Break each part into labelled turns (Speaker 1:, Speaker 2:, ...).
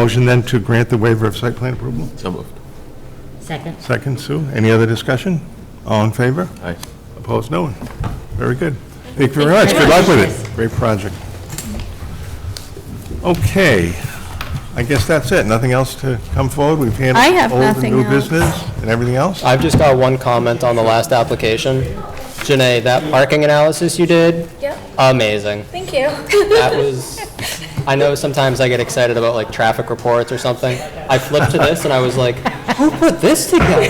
Speaker 1: Motion then to grant the waiver of site plan approval?
Speaker 2: So moved.
Speaker 3: Second.
Speaker 1: Second, Sue. Any other discussion? All in favor?
Speaker 2: Aye.
Speaker 1: Opposed? No one. Very good. Thank you very much. Good luck with it. Great project. Okay, I guess that's it. Nothing else to come forward? We've handled
Speaker 4: I have
Speaker 1: old and
Speaker 4: nothing
Speaker 1: new
Speaker 4: else.
Speaker 1: business and everything else?
Speaker 5: I've just got one comment on the last application. Janae, that parking analysis you did?
Speaker 4: Yep.
Speaker 5: Amazing.
Speaker 4: Thank you.
Speaker 5: That was, I know sometimes I get excited about like traffic reports or something. I flipped to this and I was like, who put this together?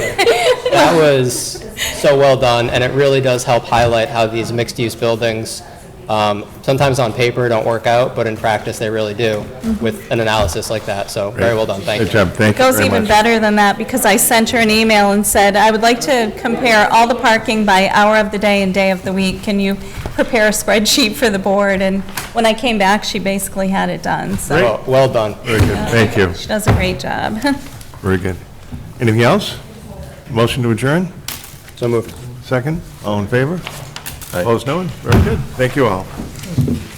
Speaker 5: That was so well done, and it really does help highlight how these mixed-use buildings, um, sometimes on paper don't work out, but in practice, they really do with an analysis like that. So very well done, thank you.
Speaker 1: Good job. Thank you
Speaker 4: Goes
Speaker 1: very
Speaker 4: even
Speaker 1: much.
Speaker 4: better than that because I sent her an email and said, I would like to compare all the parking by hour of the day and day of the week. Can you prepare a spreadsheet for the board? And when I came back, she basically had it done, so
Speaker 5: Well- Well done.
Speaker 1: Very good. Thank you.
Speaker 4: she does a great job.
Speaker 1: Very good. Anything else? Motion to adjourn?
Speaker 5: So moved.
Speaker 1: Second? All in favor?
Speaker 2: Aye.
Speaker 1: Opposed? No one? Very good. Thank you all.